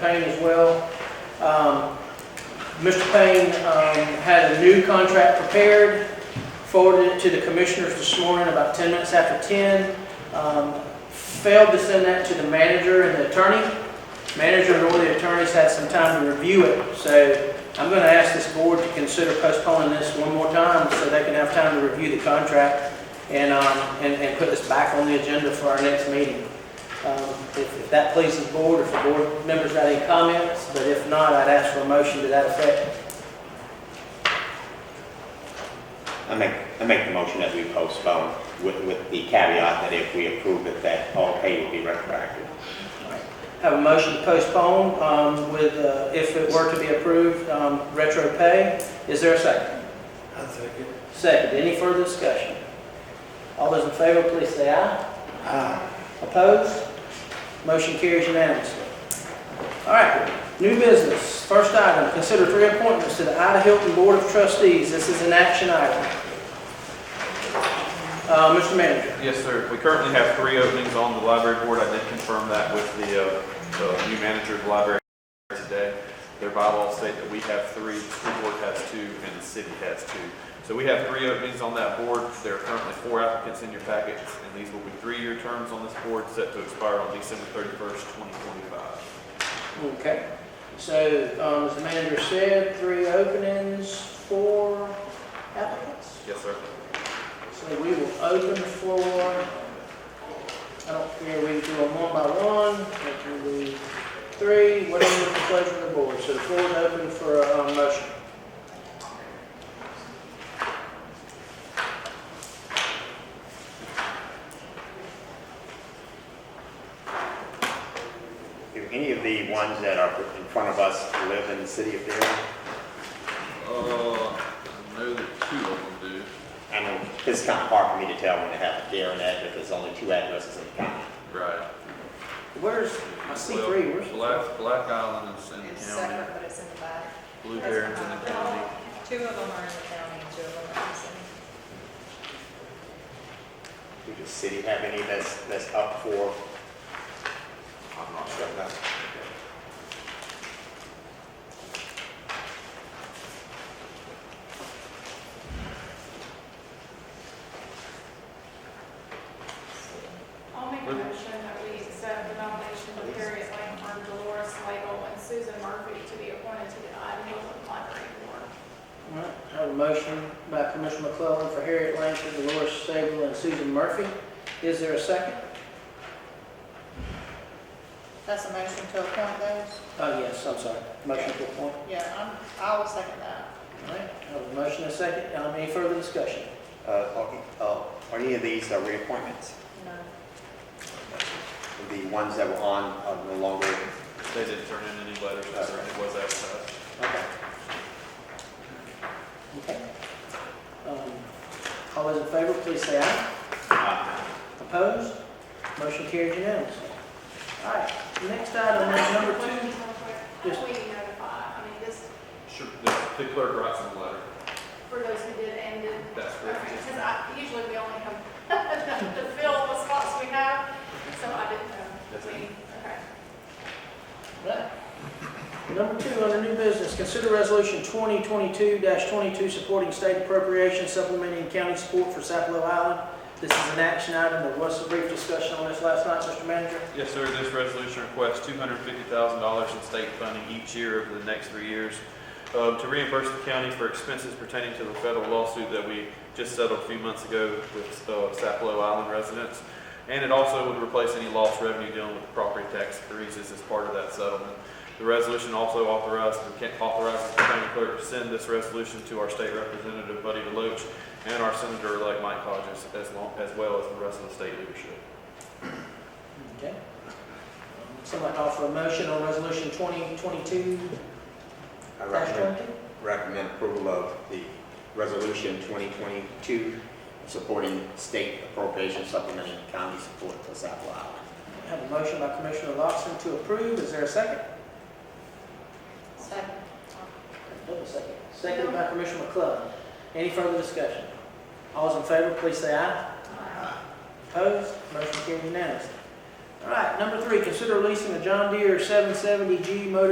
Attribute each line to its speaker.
Speaker 1: Payne as well. Um, Mr. Payne um, had a new contract prepared, forwarded it to the commissioners this morning about 10 minutes after 10. Um, Failed to send that to the manager and the attorney. Manager and all the attorneys had some time to review it, so I'm going to ask this board to consider postponing this one more time so they can have time to review the contract and, um, and and put this back on the agenda for our next meeting. Um, If if that pleases the board, if the board members got any comments, but if not, I'd ask for a motion to that effect.
Speaker 2: I make, I make the motion that we postpone with, with the caveat that if we approve it, that all pay will be retroactive.
Speaker 1: Have a motion to postpone um, with, uh, if it were to be approved, um, retro pay. Is there a second?
Speaker 3: I second.
Speaker 1: Second, any further discussion? All those in favor, please say aye.
Speaker 3: Aye.
Speaker 1: Opposed? Motion carries unanimously. All right, new business. First item, consider three appointments to the Ida Hilton Board of Trustees. This is an action item. Uh, Mr. Manager.
Speaker 4: Yes, sir. We currently have three openings on the library board. I did confirm that with the, uh, the new manager of the library today. Their bylaws state that we have three, the school board has two, and the city has two. So we have three openings on that board. There are currently four applicants in your packets, and these will be three-year terms on this board set to expire on December thirty-first, twenty twenty-five.
Speaker 1: Okay, so, um, as the manager said, three openings, four applicants.
Speaker 4: Yes, sir.
Speaker 1: So we will open the floor. I don't care, we can do them one by one, we can do three, whatever the pleasure of the board. So the floor is open for a, um, motion.
Speaker 2: Do any of the ones that are in front of us live in the city of Durham?
Speaker 4: Uh, I know that two of them do.
Speaker 2: I know it's kind of hard for me to tell when to have a Durham address, there's only two addresses in the county.
Speaker 4: Right.
Speaker 1: Where's, I see three, where's?
Speaker 4: Black Island is in
Speaker 5: It's separate, but it's in the back.
Speaker 4: Blue
Speaker 5: Two of them are in the county, two of them are in the city.
Speaker 2: Do the city have any that's, that's up for?
Speaker 4: I'm not sure.
Speaker 6: I'll make a motion that we accept the nomination of Harriet Langford, Dolores Slagle, and Susan Murphy to be appointed to the Iowa Library Board.
Speaker 1: All right, I have a motion by Commissioner McClellan for Harriet Langford, Dolores Sable, and Susan Murphy. Is there a second?
Speaker 5: That's a motion to appoint those?
Speaker 1: Oh, yes, I'm sorry, motion to appoint.
Speaker 5: Yeah, I'm, I will second that.
Speaker 1: All right, I have a motion and a second. Um, any further discussion?
Speaker 2: Uh, are- uh, are any of these are reappointments?
Speaker 5: No.
Speaker 2: The ones that were on are no longer, uh,
Speaker 4: They didn't turn in any letters,
Speaker 2: That's
Speaker 4: or
Speaker 2: right.
Speaker 4: it was advertised.
Speaker 2: okay.
Speaker 1: Okay. Um, All those in favor, please say aye.
Speaker 2: Uh,
Speaker 1: Opposed? Motion carries unanimously. All right, the next item is number two.
Speaker 6: How do we notify, I mean, this,
Speaker 4: Sure, the- the clerk writes them a letter.
Speaker 6: for those who did and did,
Speaker 4: That's correct.
Speaker 6: because I, usually we only have to fill the spots we have, so I didn't know.
Speaker 4: That's
Speaker 6: We-
Speaker 4: it.
Speaker 6: Okay.
Speaker 1: Right. Number two, under new business, consider resolution 2022-22 supporting state appropriation supplementing county support for Sapelo Island. This is an action item. There was a brief discussion on this last night, Mr. Manager.
Speaker 4: Yes, sir, this resolution requests two hundred fifty thousand dollars in state funding each year over the next three years um, to reimburse the county for expenses pertaining to the federal lawsuit that we just settled a few months ago with uh, Sapelo Island residents. And it also would replace any lost revenue dealing with property tax increases as part of that settlement. The resolution also authorizes, authorizes the county clerk to send this resolution to our state representative Buddy DeLoach and our senator-elect Mike Hodges as long, as well as the rest of the state leadership.
Speaker 1: Okay. Somebody offer a motion on resolution 2022-22?
Speaker 2: I recommend recommend approval of the resolution 2022 supporting state appropriation supplementing county support for South Island.
Speaker 1: I Have a motion by Commissioner Lawson to approve, is there a second?
Speaker 5: Second.
Speaker 1: Wait a second. Second by Commissioner McClellan. Any further discussion?
Speaker 5: Uh,
Speaker 1: All those in favor, please say aye. Opposed, motion carried unanimously. All right, number three, consider leasing a John Deere 770G motor